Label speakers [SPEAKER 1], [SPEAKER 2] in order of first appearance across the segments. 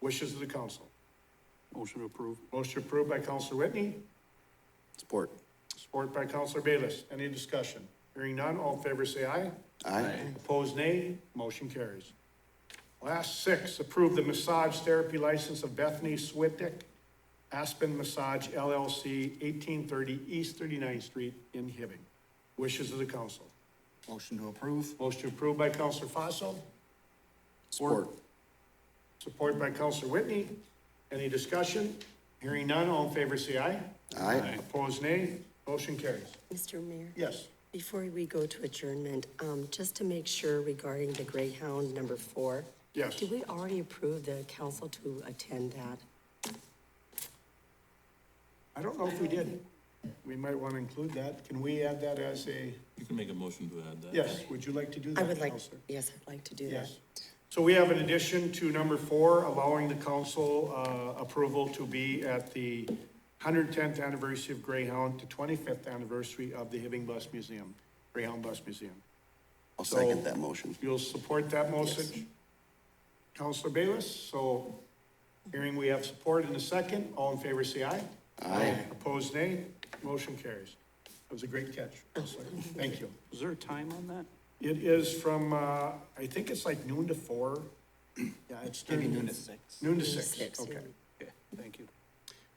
[SPEAKER 1] Wishes of the council.
[SPEAKER 2] Motion to approve.
[SPEAKER 1] Motion approved by Counselor Whitney,
[SPEAKER 3] Support.
[SPEAKER 1] support by Counselor Bayless. Any discussion? Hearing none, all in favor say aye.
[SPEAKER 3] Aye.
[SPEAKER 1] Opposed, nay. Motion carries. Last six, approve the massage therapy license of Bethany Switick, Aspen Massage LLC, 1830 East 39th Street in Hibbing. Wishes of the council.
[SPEAKER 3] Motion to approve.
[SPEAKER 1] Motion approved by Counselor Fossil,
[SPEAKER 3] Support.
[SPEAKER 1] support by Counselor Whitney. Any discussion? Hearing none, all in favor say aye.
[SPEAKER 3] Aye.
[SPEAKER 1] Opposed, nay. Motion carries.
[SPEAKER 4] Mr. Mayor,
[SPEAKER 1] Yes.
[SPEAKER 4] before we go to adjournment, um, just to make sure regarding the Greyhound number four.
[SPEAKER 1] Yes.
[SPEAKER 4] Did we already approve the council to attend that?
[SPEAKER 1] I don't know if we did. We might want to include that. Can we add that as a,
[SPEAKER 5] You can make a motion to add that.
[SPEAKER 1] yes, would you like to do that?
[SPEAKER 4] I would like,
[SPEAKER 1] Counselor?
[SPEAKER 4] yes, I'd like to do that.
[SPEAKER 1] Yes. So we have an addition to number four, allowing the council uh, approval to be at the 110th anniversary of Greyhound to 25th anniversary of the Hibbing Bus Museum, Greyhound Bus Museum.
[SPEAKER 3] I'll
[SPEAKER 1] So-
[SPEAKER 3] second that motion.
[SPEAKER 1] You'll support that motion? Counselor Bayless, so hearing we have support in a second, all in favor say aye. Aye. Opposed nay, motion carries. That was a great catch, Counselor. Thank you.
[SPEAKER 2] Is there a time on that?
[SPEAKER 1] It is from, uh, I think it's like noon to four. Yeah, it's during noon to six. Noon to six,
[SPEAKER 4] Six,
[SPEAKER 1] okay.
[SPEAKER 2] Okay, thank you.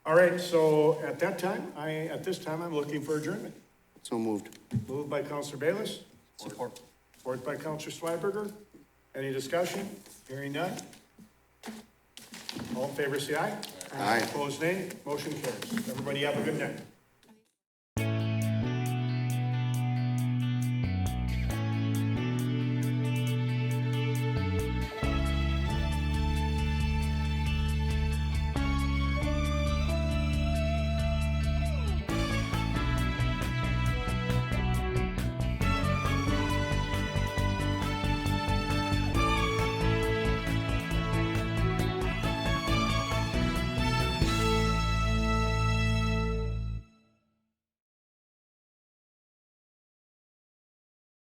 [SPEAKER 1] All right, so at that time, I, at this time, I'm looking for adjournment.
[SPEAKER 3] So moved.
[SPEAKER 1] Moved by Counselor Bayless,
[SPEAKER 3] Support.
[SPEAKER 1] Support by Counselor Schweberger. Any discussion? Hearing none? All in favor, say aye.
[SPEAKER 3] Aye.
[SPEAKER 1] Opposed, nay. Motion carries. Everybody have a good night.